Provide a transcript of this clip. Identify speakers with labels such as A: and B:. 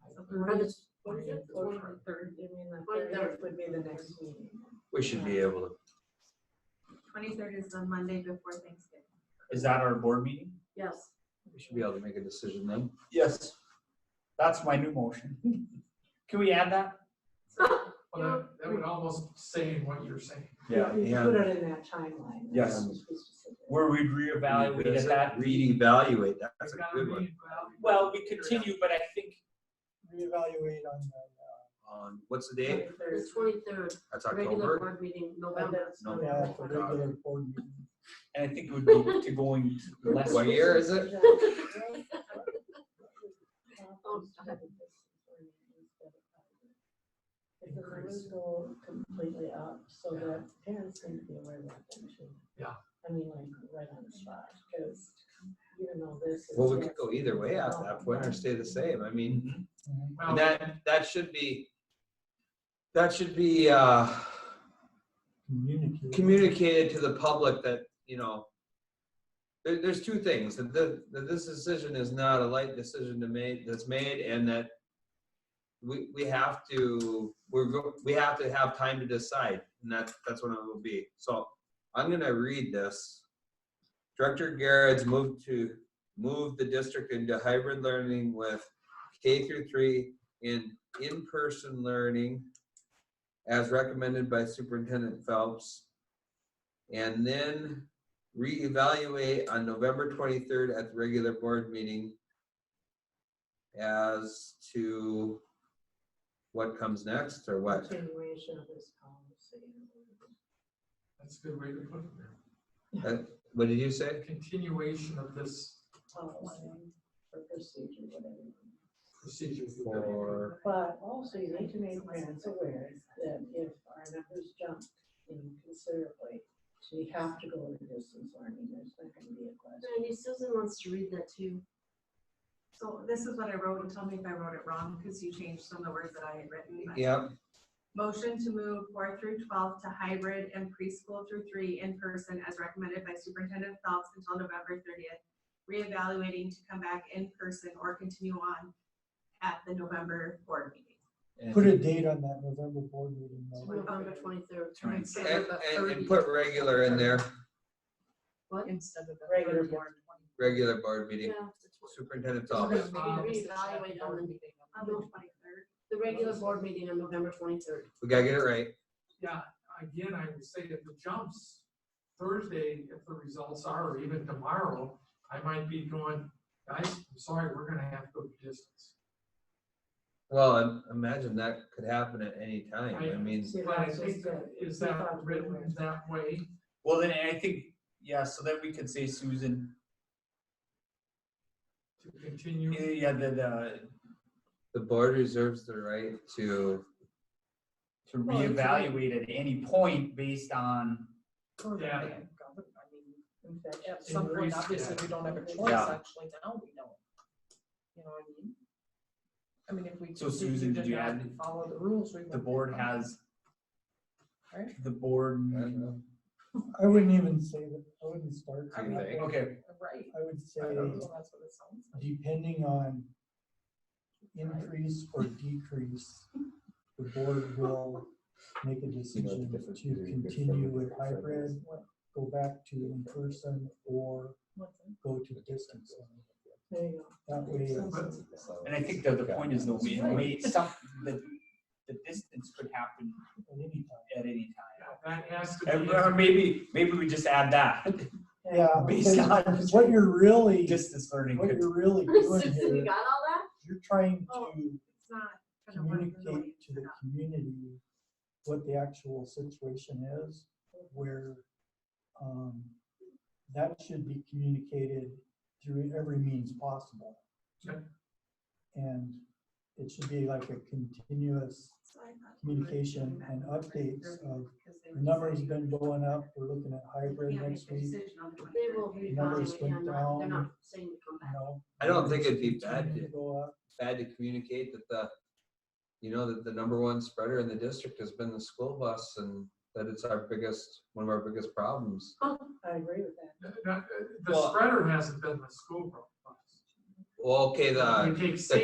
A: Or the
B: twentieth,
A: or
B: the third, you mean the
A: Twenty-third would be the next meeting.
C: We should be able to.
B: Twenty-third is the Monday before Thanksgiving.
D: Is that our board meeting?
B: Yes.
C: We should be able to make a decision then.
D: Yes. That's my new motion. Can we add that?
E: Well, that, that would almost say what you're saying.
A: We
C: yeah.
A: put it in that timeline.
D: Yes.
A: That's supposed to be specific.
D: Where we'd reevaluate at that.
C: Reevaluate, that's a
E: We've gotta
C: good one.
E: reevaluate.
D: Well, we continue, but I think
F: reevaluate on the, uh,
C: On, what's the date?
A: Twenty-third.
B: twenty-third,
C: That's October.
B: board meeting,
A: November.
C: No. Oh,
F: uh, yeah, for regular board meeting.
D: And I think it would be to going to less.
C: What year is it?
B: Oh, stop
A: Because the rules go completely up, so that parents need to be aware of that thing too.
E: Yeah.
A: I mean, like, right on the spot, because you don't know this. is
C: Well, we
A: this.
C: could go either way at that point or stay the same. I mean,
E: Well,
C: and that, that should be, that should be, uh,
F: Communicate.
C: communicated to the public that, you know, there, there's two things, that, the, that this decision is not a light decision to make, that's made, and that we, we have to, we're, go- we have to have time to decide, and that's, that's what it will be. So I'm gonna read this. Director Garrett's moved to, move the district into hybrid learning with K through three in in-person learning as recommended by Superintendent Phelps. And then reevaluate on November twenty-third at the regular board meeting as to what comes next or what.
A: Continuation of this policy.
E: That's a good way to put it. there.
C: What did you say?
E: A continuation of this
A: Policy or procedure, whatever.
E: procedure.
C: For,
A: But also you need to make parents aware that if our numbers jump in considerably, so you have to go to distance learning, there's not gonna be a question.
G: Randy, Susan wants to read that too.
B: So this is what I wrote, and tell me if I wrote it wrong, because you changed some of the words that I had written. but-
C: yep,
B: Motion to move four through twelve to hybrid and preschool through three in person as recommended by Superintendent Phelps until November thirtieth. Reevaluating to come back in person or continue on at the November board meeting.
C: and-
F: Put a date on that November board meeting. though.
G: November twenty-third.
D: Right.
C: and, and, and put regular in there,
G: What?
B: Instead of the.
A: Regular
B: 30th.
A: board.
C: regular board
G: Yeah,
C: meeting,
G: the
C: Superintendent
G: twen-
C: Phelps.
G: we're gonna Reevaluate on the,
B: On the twenty-third.
G: the regular board meeting on November twenty-third.
C: We gotta get it right.
E: Yeah, again, I would say if it jumps Thursday, if the results are, or even tomorrow, I might be going, guys, I'm sorry, we're gonna have to go to distance.
C: Well, im- imagine that could happen at any time. I mean,
A: See,
E: But I
A: that's
E: think
A: just
E: that,
A: it.
E: is
A: We
E: that
A: thought we were-
E: written that way?
D: Well, then I think, yeah, so that we could say Susan,
E: to continue.
D: yeah, the, the,
C: the board reserves the right to
D: to reevaluate at any point based on,
E: Yeah.
A: In fact,
H: At some
E: Increase,
H: point, obviously,
E: yeah.
H: we don't have a choice,
D: Yeah.
H: actually, now we know. You know what I mean? I mean, if we.
D: So
H: continue
D: Susan,
H: to
D: did you
H: not
D: add-
H: Follow the rules. we
D: the
H: won't
D: board
H: follow.
D: has.
H: Right.
D: The board,
C: I don't know.
F: I wouldn't even say that, I wouldn't start.
C: Do you
F: there.
C: think?
D: okay,
H: Right.
F: I would say,
H: I don't know, that's what it sounds like.
F: depending on increase or decrease, the board will make a decision to
I: difference between good
F: continue
I: Friday
F: with
I: and Saturday.
F: hybrid, go back to in-person, or go to distance. learning.
A: There you go.
F: That way, it's-
D: and I think that the point is though, we, we, some, the, the distance could happen
F: at any time.
D: at any
E: That has to be.
D: time. And, or maybe, maybe we just add that,
F: Yeah,
D: Based
F: because what you're really,
D: distance learning.
F: what
D: could-
F: you're really doing
G: Susan, you
F: here,
G: got all that?
F: you're trying
B: Oh.
F: to
B: It's not gonna work. the way
F: communicate
B: it's
F: to the
B: set up.
F: community what the actual situation is, where, um, that should be communicated through every means possible.
E: Sure.
F: And it should be like a continuous
B: So I thought we were
F: communication
B: doing
F: and
B: that
F: updates
B: right
F: of,
B: because they
F: the number's
B: decided-
F: been going up, we're looking at hybrid
B: Can't make
F: next
B: the
F: week, you
B: decision on the
G: They will
B: 23rd.
F: Numbers
G: reevaluate,
F: went
G: I'm not, they're
F: down.
G: not saying to come back.
F: know.
C: I don't think it'd be
F: numbers
C: bad
F: continue
C: to-
F: to Go up.
C: Bad to communicate that the, you know, that the number one spreader in the district has been the school bus and that it's our biggest, one of our biggest problems.
A: I agree with that.
E: Uh, The
C: Well-
E: spreader hasn't been the school problem.
C: Well, okay, the.
E: We take
C: the
E: state